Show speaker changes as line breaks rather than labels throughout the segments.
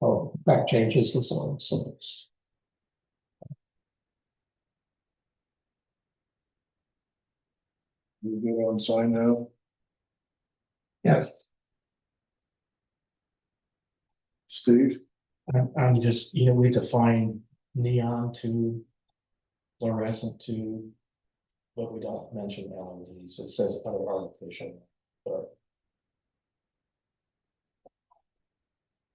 oh, back changes and so on, so. it's-
You good on sign now?
Yeah,
Steve,
I'm, I'm just, you know, we define neon to fluorescent to, but we don't mention LED, so it says other artificial, but.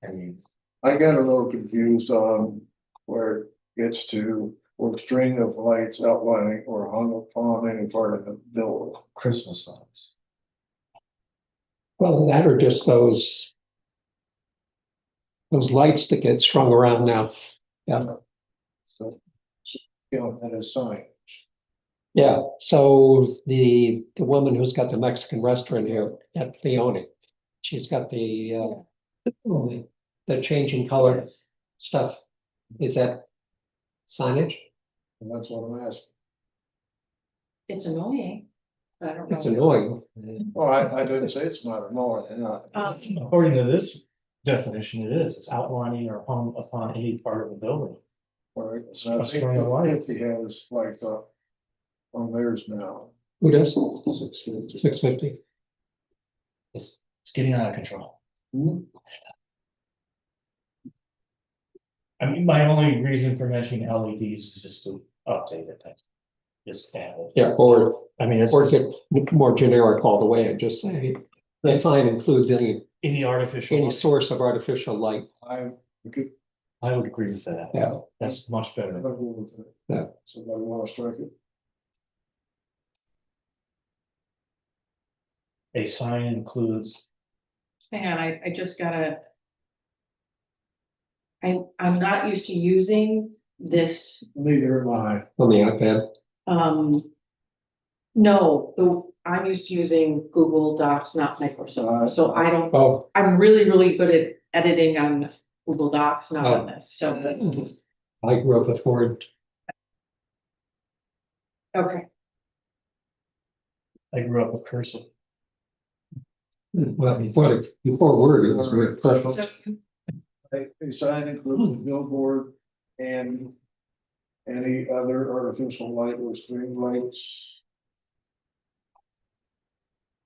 I mean,
I got a little confused on where it gets to, or string of lights outlining or hung upon any part of the building.
Christmas lights,
well, that are just those. Those lights that get strung around now,
So, you know, that is sign.
yeah, so the, the woman who's got the Mexican restaurant here at Leone. She's got the, uh, the changing color stuff, is that signage?
And that's what I'm asking.
It's annoying, but I don't know.
It's annoying.
Oh, I, I didn't say it's not annoying. I-
Um,
according to this definition, it is, it's outlining or hung upon any part of the building.
or it's not- I think
String of lights.
He has like, uh, on theirs now.
Who does?
Six fifty.
Six fifty.
It's, it's getting out of control. Mm-hmm. I mean, my only reason for mentioning LEDs is just to update it, that's- just add it.
Yeah, or,
I mean, it's
or get more generic all the way and just say, the sign includes any,
any artificial,
any source of artificial light.
I, we could,
I would agree with that.
Yeah.
That's much
I
better.
don't know with it.
Yeah.
Somebody wanna strike it?
A sign includes,
Hang on, I, I just gotta. I, I'm not used to using this,
Neither am I.
On the iPad,
um. No, the, I'm used to using Google Docs, not
Uh,
Microsoft, so I don't,
oh,
I'm really, really good at editing on Google Docs,
Oh.
not on this, so,
I grew up with Word,
okay.
I grew up with cursive.
well, before, before Word, it was Word. perfect.
So you-
A, a sign includes a billboard and any other artificial light or string lights.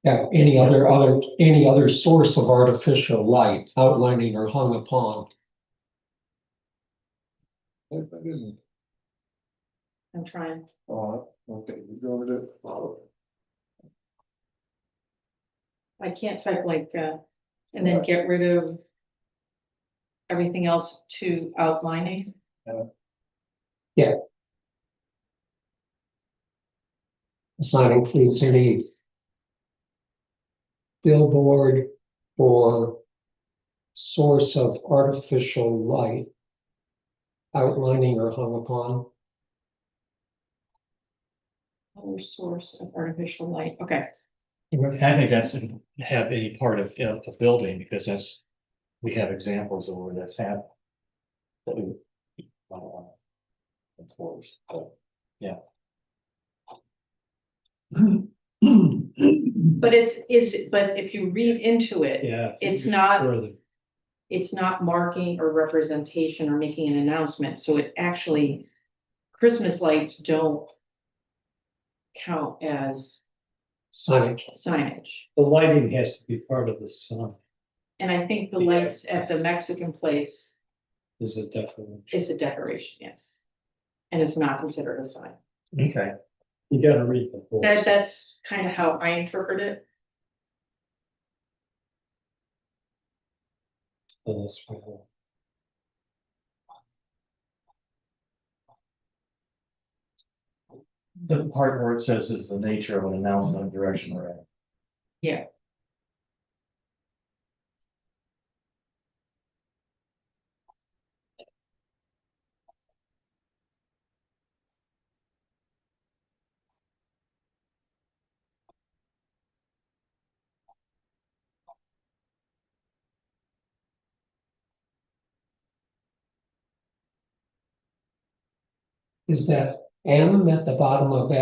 Yeah, any other, other, any other source of artificial light outlining or hung upon.
I I didn't,
I'm trying,
oh, okay, you're doing it.
I can't type like, uh, and then get rid of. Everything else to outlining.
The sign includes any billboard or source of artificial light outlining or hung upon.
Other source of artificial light, okay,
I think that's have any part of, you know, the building, because that's, we have examples of where that's happened. That we. we might wanna Enforce, but, yeah.
but it's, is, but if you read into it,
Yeah.
It's not-
Further.
it's not marking or representation or making an announcement, so it actually, Christmas lights don't count as
Signage.
signage,
The lighting has to be part of the sign,
and I think the
Yeah.
lights at the Mexican place
is a decoration.
is a decoration, yes. And it's not considered a sign,
Okay.
You gotta read the whole.
that, that's kind of how I interpret it,
so that's why I-
The part where it says is the nature of an announcement, direction or. act.
Yeah.
Is that M at the bottom of that